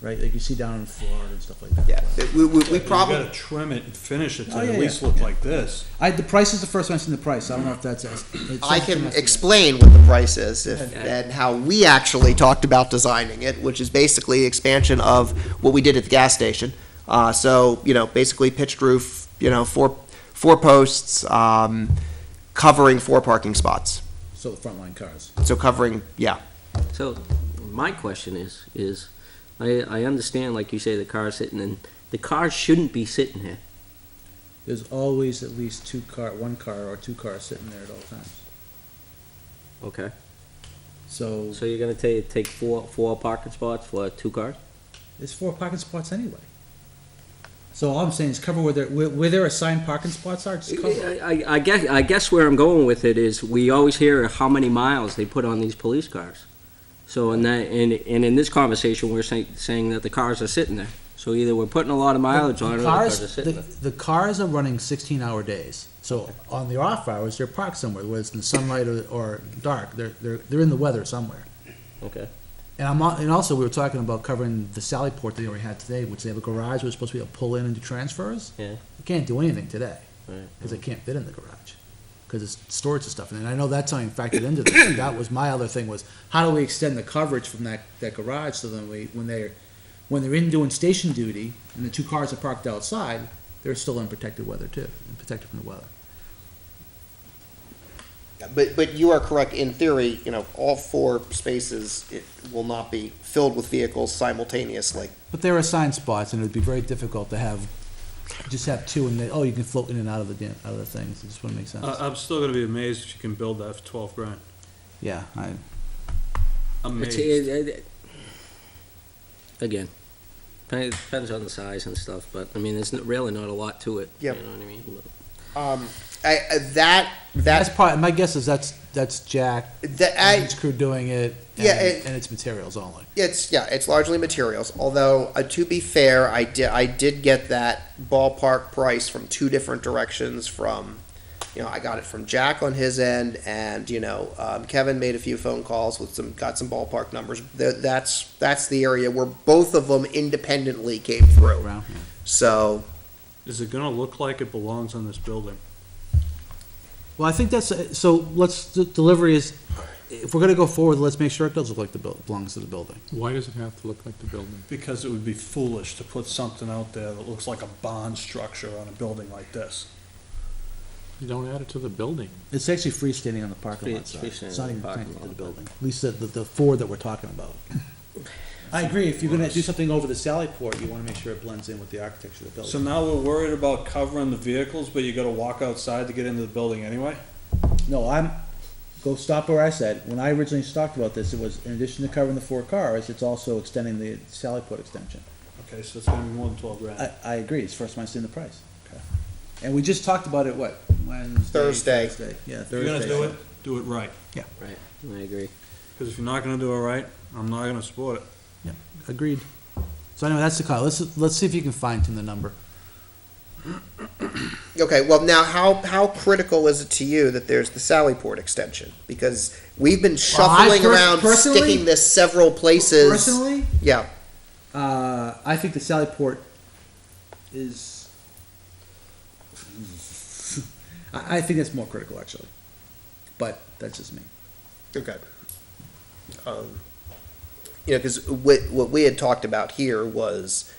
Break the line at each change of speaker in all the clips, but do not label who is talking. right? Like you see down in Florida and stuff like that.
Yeah, it- we, we, we
You
probably,
gotta trim it and finish it to
Oh, yeah,
at least
yeah,
look
yeah.
like this.
I, the price is the first one, I seen the price, I don't know if that's. as- it's
I
just an
can
estimate.
explain what the price is if,
Yeah.
and how we actually talked about designing it, which is basically expansion of what we did at the gas station. Uh, so, you know, basically pitched roof, you know, four, four posts, um, covering four parking spots.
So the frontline cars.
So covering, yeah,
So, my question is, is, I, I understand, like you say, the car's sitting in, the car shouldn't be sitting here.
There's always at least two car, one car or two cars sitting there at all times.
Okay.
So
So you're gonna take, take four, four parking spots for two cars?
it's four parking spots anyway. So all I'm saying is cover where there, where, where there assigned parking spots are, just cover. it.
I, I- I guess, I guess where I'm going with it is, we always hear how many miles they put on these police cars. So in that, and, and in this conversation, we're saying, saying that the cars are sitting there. So either we're putting a lot of mileage on it, or the cars are
Cars,
sitting there.
the, the cars are running sixteen hour days, so on the off hours, they're parked somewhere, whether it's in the sunlight or, or dark, they're, they're, they're in the weather somewhere.
Okay.
And I'm, al- and also, we were talking about covering the Sally Port that they already had today, which they have a garage, we're supposed to be able to pull in and do transfers.
Yeah.
We can't do anything today,
Right.
because they can't fit in the garage, because it's storage and stuff, and I know that's not even factored into this, and that was my other thing was, how do we extend the coverage from that, that garage, so then we, when they're, when they're in doing station duty, and the two cars are parked outside, they're still in protected weather too, and protected from the weather.
But, but you are correct, in theory, you know, all four spaces, it will not be filled with vehicles simultaneously.
But there are assigned spots, and it'd be very difficult to have, just have two, and then, oh, you can float in and out of the, dam- out of the things, it just wouldn't make sense.
Uh-uh.
I, I'm still gonna be amazed if you can build that for twelve grand.
Yeah, I,
It's-
Amazed.
it- it- Again, depends depends on the size and stuff, but, I mean, there's n- really not a lot to it.
Yep.
You know what I mean?
Um, I, I- that,
That's
that,
part, my guess is that's, that's Jack
that,
and
I,
his crew doing it.
Yeah,
and-
it-
And it's materials only.
it's, yeah, it's largely materials, although, uh, to be fair, I did, I did get that ballpark price from two different directions from, you know, I got it from Jack on his end, and, you know, um, Kevin made a few phone calls with some, got some ballpark numbers. Th that's, that's the area where both of them independently came through,
around,
so.
Is it gonna look like it belongs on this building?
Well, I think that's, uh, so let's, the delivery is, if we're gonna go forward, let's make sure it does look like the, buil- belongs to the building.
Why does it have to look like the building?
Because it would be foolish to put something out there that looks like a bond structure on a building like this.
You don't add it to the building.
It's actually freestanding on the parking
lot Free- side. freestanding It's not on the even parking connected to lot. the
building. At least the, the, the four that we're talking about. I agree, if you're gonna do something over the Sally Port, you wanna make sure it blends in with the architecture of the
So
building.
now we're worried about covering the vehicles, but you gotta walk outside to get into the building anyway?
No, I'm, go stop where I said, when I originally talked about this, it was in addition to covering the four cars, it's also extending the Sally Port extension.
Okay, so it's gonna be more than twelve grand.
I, I agree, it's the first time I've seen the price. And we just talked about it, what, Wednesday?
Thursday.
Thursday, yeah,
If you're
Thursday.
gonna do it, do it right.
Right, I agree.
Because if you're not gonna do it right, I'm not gonna support it.
Agreed. So anyway, that's the call, let's, let's see if you can fine tune the number.
Okay, well now how how critical is it to you that there's the Sallyport extension? Because we've been
I
shuffling
per-
around,
personally-
sticking this several places.
Personally,
yeah,
uh, I think the Sally Port is, I, I think that's more critical, actually. But that's just me.
okay. Um, you know, because what what we had talked about here was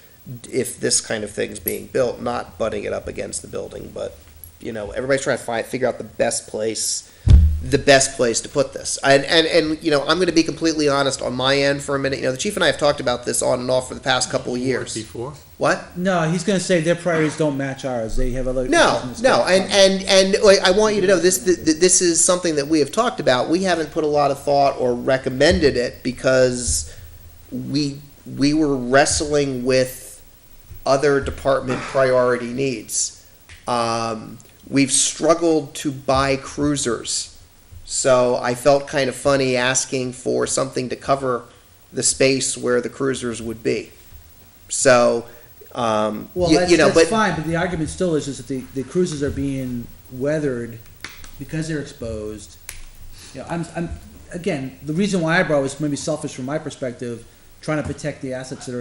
if this kind of thing's being built, not butting it up against the building, but you know, everybody's trying to find figure out the best place, the best place to put this. And and and you know, I'm going to be completely honest on my end for a minute. You know, the chief and I have talked about this on and off for the past couple of years.
Before?
What?
No, he's gonna say their priorities don't match ours, they have other.
No, no, and, and, and like, I want you to know, this, th- th- this is something that we have talked about. We haven't put a lot of thought or recommended it because we, we were wrestling with other department priority needs. Um, we've struggled to buy cruisers. So I felt kind of funny asking for something to cover the space where the cruisers would be. So, um,
Well,
you-
that's,
you know,
that's
but
fine, but the argument still is, is that the, the cruises are being weathered because they're exposed. You know, I'm, I'm, again, the reason why I brought was maybe selfish from my perspective, trying to protect the assets that are